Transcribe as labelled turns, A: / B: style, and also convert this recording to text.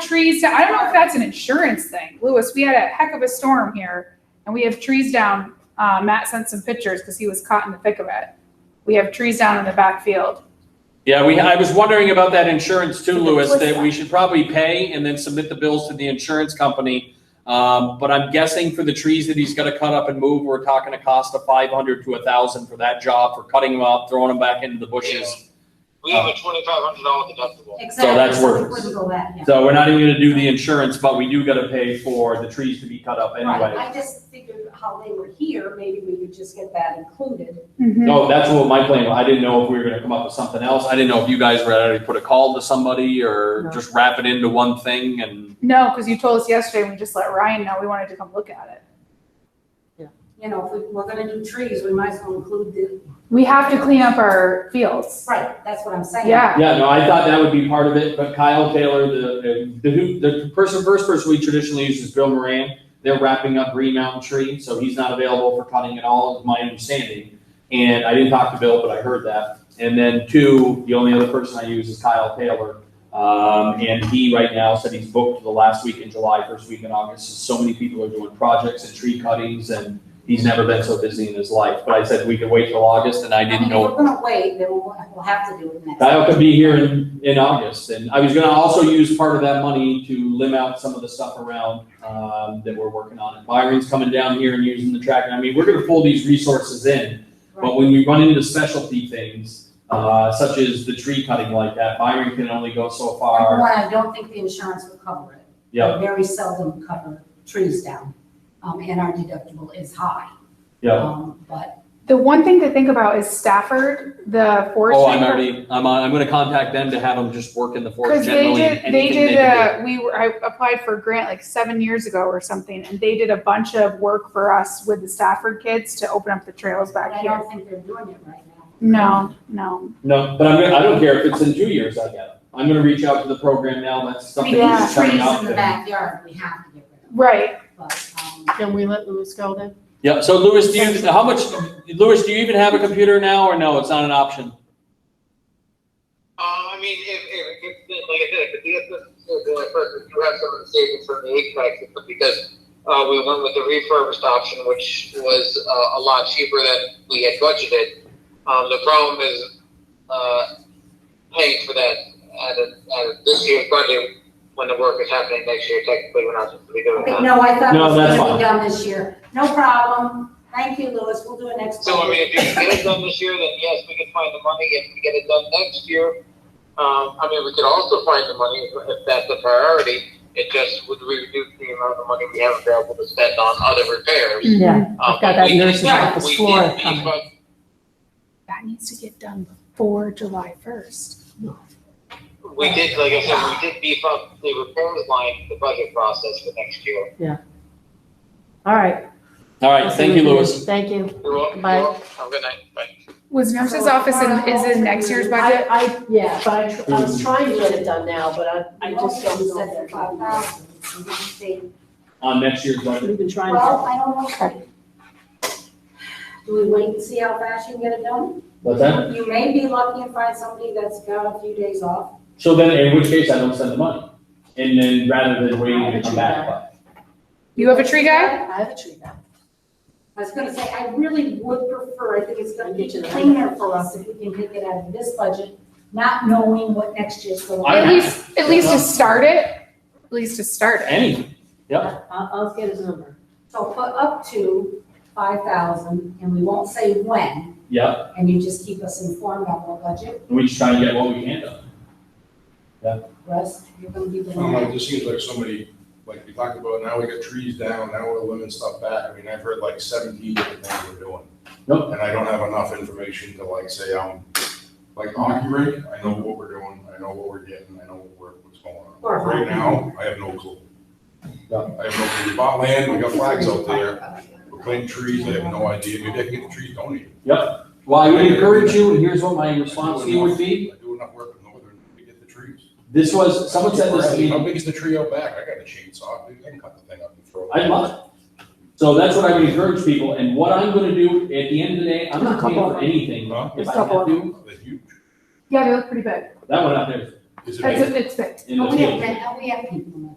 A: trees down. I don't know if that's an insurance thing. Lewis, we had a heck of a storm here and we have trees down. Uh, Matt sent some pictures because he was caught in the thick of it. We have trees down in the back field.
B: Yeah, we, I was wondering about that insurance too,
A: So the
B: Louis,
A: twist
B: that
A: up.
B: we should probably pay and then submit the bills to the insurance company. Um, but I'm guessing for the trees that he's gonna cut up and move, we're talking a cost of five hundred to a thousand for that job, for cutting them up, throwing them back into the bushes.
C: We have a twenty-five hundred dollar deductible.
D: Exactly.
B: that's
D: so it
B: worthless.
D: Wouldn't go back, yeah.
B: So we're not even gonna do the insurance, but we do gotta pay for the trees to be cut up
D: Right,
B: anyway.
D: I just figured how they were here, maybe we could just get that included.
B: No, that's what my plan, was. I didn't know if we were gonna come up with something else. I didn't know if you guys were ready to put a call to somebody or
D: No.
B: just wrap it into one thing and.
A: No, because you told us yesterday and we just let Ryan know we wanted to come look at it.
D: You know, if we- we're gonna do trees, we might as well include the,
A: We have to clean up our fields.
D: right, that's what I'm saying.
A: Yeah.
B: Yeah, no, I thought that would be part of it, but Kyle Taylor, the, the, who- the person, first person we traditionally use is Bill Moran. They're wrapping up Green Mountain Tree, so he's not available for cutting at all, is my understanding. And I didn't talk to Bill, but I heard that. And then two, the only other person I use is Kyle Taylor. Um, and he right now said he's booked the last week in July, first week in August. So many people are doing projects and tree cuttings and he's never been so busy in his life. But I said we could wait till August and I
D: I mean,
B: didn't
D: if
B: know.
D: we're gonna wait, then we'll, we'll have to do it next.
B: Kyle could be here in, in August, and I was gonna also use part of that money to limb out some of the stuff around, um, that we're working on. And Byron's coming down here and using the track, and I mean, we're gonna pull these resources in, but when we run into specialty things, uh, such as the tree cutting like that, Byron can only go so
D: Number
B: far.
D: one, I don't think the insurance will cover it.
B: Yeah,
D: They Very seldom cover trees down, um, and our deductible is high.
B: yeah.
D: Um, But,
A: The one thing to think about is Stafford, the forestry.
B: Oh, I'm already, I'm, I'm gonna contact them to have them just work in the forest
A: Because they
B: generally.
A: did, they
B: anything
A: did, uh,
B: can
A: a we were, I applied for a grant like seven years ago or something, and they did a bunch of work for us with the Stafford kids to open up the trails
D: but
A: back
D: I
A: here.
D: don't think they're doing it right now.
A: No, no.
B: do. No, but I'm, gonna- I don't care if it's in two years, I get it. I'm gonna reach out to the program now, that's
D: I
B: something
D: mean,
B: that's
D: these trees
B: coming up.
D: in the
B: and-
D: backyard, we have to get rid of,
A: Right.
D: but, um,
E: Can we let Louis go then?
B: Yeah, so Louis, do you, how much, Louis, do you even have a computer now or no? It's not an option?
C: Um, I mean, if, if, if, like I said, if the assistant person do have some of the savings from the HVAC system because uh, we went with the refurbished option, which was uh, a lot cheaper than we had budgeted. Um, the problem is uh, paying for that out of, out of this year's budget when the work is happening next year. Technically, we're not supposed to be doing
D: Okay,
C: that.
D: no, I thought it
B: No,
D: was
B: that's
D: gonna
B: fine.
D: be done this year. No problem. Thank you, Louis. We'll do it next.
C: So, I
D: time.
C: mean, if you can get it done this year, then yes, we can find the money. If we get it done next year, um, I mean, we could also find the money if, if that's a priority. It just would reduce the amount of money we have available to spend on other repairs.
E: Yeah.
C: Um,
E: Mm, I've got that
C: we can-
E: nurse's office
C: we can
E: floor
C: be-
E: coming.
C: but
A: That needs to get done before July first.
C: We did, like I said, we did beef up the repairs line, the budget process for next year.
E: All right.
B: All right, thank you, Louis.
E: Thank you.
C: You're welcome.
E: Bye.
C: Have a good night. Bye.
A: Was nurse's office in, is in next year's budget?
E: I, I, yeah, but I, tr- I
B: Mm.
E: was trying to get it done now, but I, I just don't
D: Set it at five
E: know.
D: thousand. We can see.
B: On next year's budget?
E: We've been trying
D: Well,
E: to,
D: I don't know. Do we wait and see how fast you can get it done?
B: What's that?
D: You may be lucky and find somebody that's got a few days off.
B: So then, in which case, I don't send the money. And then rather than waiting to come back.
A: You have a tree guy?
E: I have a tree now.
D: I was gonna say, I really would prefer, I think it's gonna be
E: Get you the-
D: cleaner for us if we can take it out of this budget, not knowing what next year's gonna be.
B: I-
A: At least, at least to start it, at least to start it.
B: Any, Yep.
E: I'll, I'll get his number.
D: So put up to five thousand, and we won't say when,
B: yep,
D: and you just keep us informed on our budget.
B: we just try to get what we can done.
D: Russ, you're gonna be the
F: Um,
D: one.
F: it just seems like somebody, like we talked about, now we got trees down, now we're limiting stuff back. I mean, I've heard like seventeen different things we're doing.
B: Nope.
F: And I don't have enough information to like say, um, like hockey rink, I know what we're doing, I know what we're getting, I know what we're, what's going on.
D: Or hockey.
F: Right now, I have no clue.
B: Yeah.
F: I have no clue. We bought land, we got flags out there, we're planting trees, I have no idea. Maybe I can get the trees donated.
B: Well, I would encourage you, and here's what my response to you would be.
F: I do enough work in northern to get the trees.
B: This was, someone said this to
F: How
B: me,
F: big is the tree out back? I got a chainsaw, I can cut the thing up and throw it.
B: I love it. So that's what I would encourage people, and what I'm gonna do at the end of the day, I'm not paying for anything.
F: Huh?
B: If I have to,
F: They're huge.
A: Yeah, they look pretty big.
B: that one out there is
F: Is it
A: That's, it's,
D: Are
B: in the
D: we
B: field.
D: at, are we at people in the town?